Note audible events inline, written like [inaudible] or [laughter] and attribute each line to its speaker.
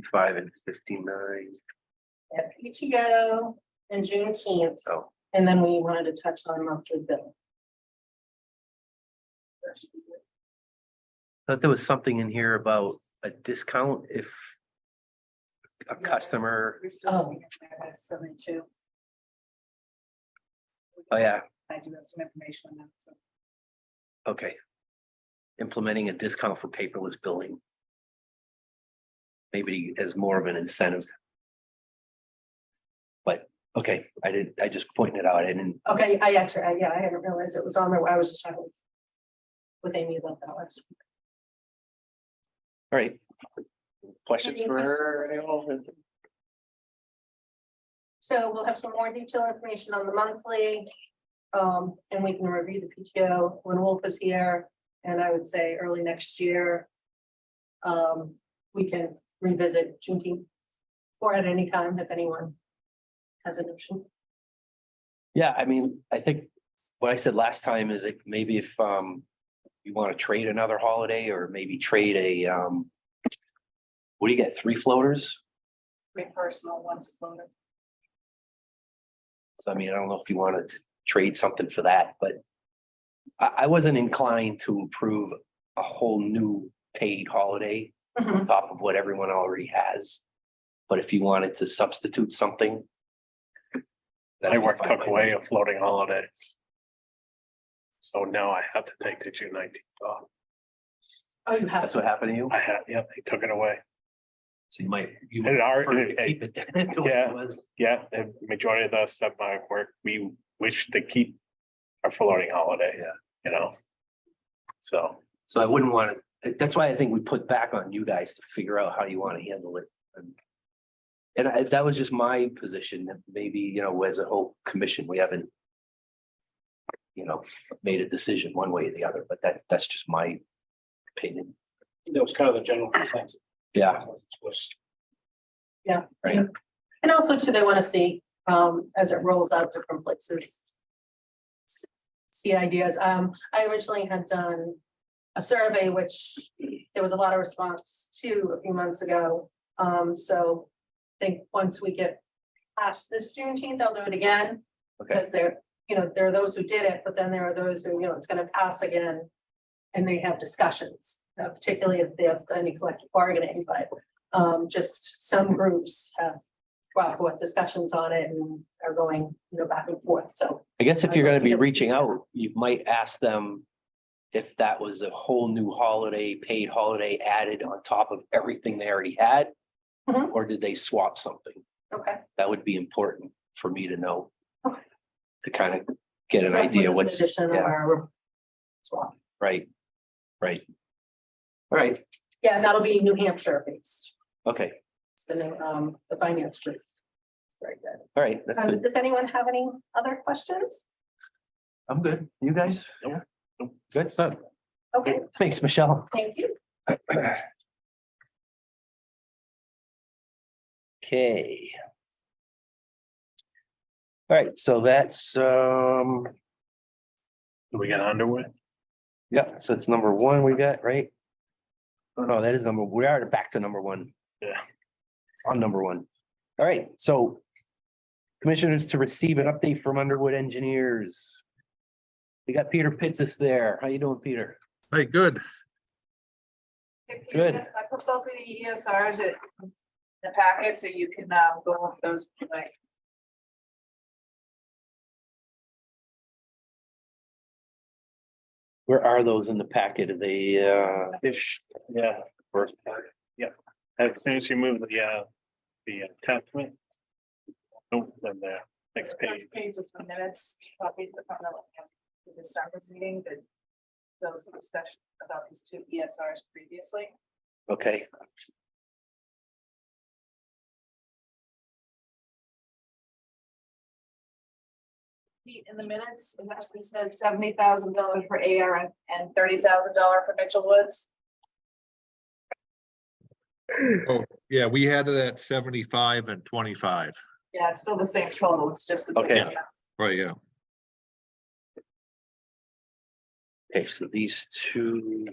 Speaker 1: Fifty-five and fifty-nine.
Speaker 2: at PTO and Juneteenth.
Speaker 1: Oh.
Speaker 2: And then we wanted to touch on monthly bill.
Speaker 1: Thought there was something in here about a discount if a customer,
Speaker 3: We're still looking at that seventy-two.
Speaker 1: oh yeah,
Speaker 3: I do have some information on that, so.
Speaker 1: okay. Implementing a discount for paperless billing. Maybe as more of an incentive. But, okay, I did, I just pointed it out, I didn't,
Speaker 2: Okay, I actually, I- yeah, I hadn't realized it was on there. I was just talking with- with Amy about that. I was-
Speaker 1: all right. Questions
Speaker 2: Any
Speaker 1: for
Speaker 2: questions?
Speaker 1: her? anyone?
Speaker 2: So we'll have some more detailed information on the monthly. Um, and we can review the PTO when Wolf is here, and I would say early next year. Um, we can revisit Juneteenth or at any time if anyone has an option.
Speaker 1: Yeah, I mean, I think what I said last time is like maybe if um you want to trade another holiday or maybe trade a um. What do you get? Three floaters?
Speaker 3: My personal one's floated.
Speaker 1: So I mean, I don't know if you wanted to trade something for that, but. I I wasn't inclined to approve a whole new paid holiday
Speaker 2: Mm-hmm.
Speaker 1: on
Speaker 4: Mm.
Speaker 1: top of what everyone already has. But if you wanted to substitute something. that'd
Speaker 4: I
Speaker 1: be
Speaker 4: work
Speaker 1: fine
Speaker 4: took
Speaker 1: by
Speaker 4: away
Speaker 1: me.
Speaker 4: a floating holiday. So now I have to take the June nineteenth off.
Speaker 2: Oh, you have.
Speaker 1: That's what happened to you?
Speaker 4: I had, yep, they took it away.
Speaker 1: So you might, you would
Speaker 4: It
Speaker 1: prefer
Speaker 4: already,
Speaker 1: to
Speaker 4: it-
Speaker 1: keep it. [laughs] the way it
Speaker 4: yeah.
Speaker 1: was.
Speaker 4: yeah, the majority of us at my work, we wish to keep our floating holiday.
Speaker 1: Yeah.
Speaker 4: You know? So,
Speaker 1: So I wouldn't want to, that's why I think we put back on you guys to figure out how you want to handle it. And- And I, that was just my position, that maybe, you know, as a whole commission, we haven't. You know, made a decision one way or the other, but that's, that's just my opinion.
Speaker 5: That was kind of the general consensus.
Speaker 1: Yeah,
Speaker 5: Was
Speaker 2: And also too, they want to see, um, as it rolls out different places. s- See ideas. Um, I originally had done a survey, which there was a lot of response to a few months ago. Um, so I think once we get past this Juneteenth, I'll do it again.
Speaker 1: Okay.
Speaker 2: Because there, you know, there are those who did it, but then there are those who, you know, it's gonna pass again. And they have discussions, uh, particularly if they have any collective bargaining, but, um, just some groups have brought forth discussions on it and are going, you know, back and forth, so.
Speaker 1: I guess if you're gonna be reaching out, you might ask them. If that was a whole new holiday, paid holiday added on top of everything they already had.
Speaker 2: Mhm.
Speaker 1: Or did they swap something?
Speaker 2: Okay.
Speaker 1: that would be important for me to know.
Speaker 2: Okay.
Speaker 1: To kind of get an idea what's,
Speaker 2: Addition of
Speaker 1: yeah.
Speaker 2: our swap.
Speaker 1: right, right. All right,
Speaker 2: Yeah, that'll be New Hampshire based,
Speaker 1: okay,
Speaker 2: it's the name, um, the finance group. Very good.
Speaker 1: all right, that's
Speaker 2: Um,
Speaker 1: good,
Speaker 2: does anyone have any other questions?
Speaker 1: I'm good, you guys?
Speaker 4: Nope.
Speaker 1: Yeah? Good,
Speaker 2: Okay,
Speaker 1: thanks, Michelle.
Speaker 2: thank you.
Speaker 1: Okay. All right, so that's, um,
Speaker 4: do we get underway?
Speaker 1: yeah, so it's number one we got, right? Oh, no, that is number, we are back to number one.
Speaker 4: Yeah.
Speaker 1: On number one. All right, so. Commissioners to receive an update from Underwood Engineers. We got Peter Pitts there. How you doing, Peter?
Speaker 6: Hey, good.
Speaker 1: Good.
Speaker 3: I put both of the ESRs in the packet, so you can um, go over those like
Speaker 1: Where are those in the packet? Are they, uh,
Speaker 4: Ish, yeah. First, part, yeah. As soon as you move the, uh, the attachment. Don't, then there, next page.
Speaker 3: Next Page is the minutes, copies of the final, the December meeting, that those discussions about these two ESRs previously.
Speaker 1: okay.
Speaker 3: In the minutes, it actually said seventy thousand dollars for AR and- and thirty thousand dollar for Mitchell Woods.
Speaker 6: Yeah, we had it at seventy-five and twenty-five.
Speaker 3: Yeah, it's still the same total, it's just. the-
Speaker 1: Okay.
Speaker 6: Right, yeah.
Speaker 1: Okay, so these two.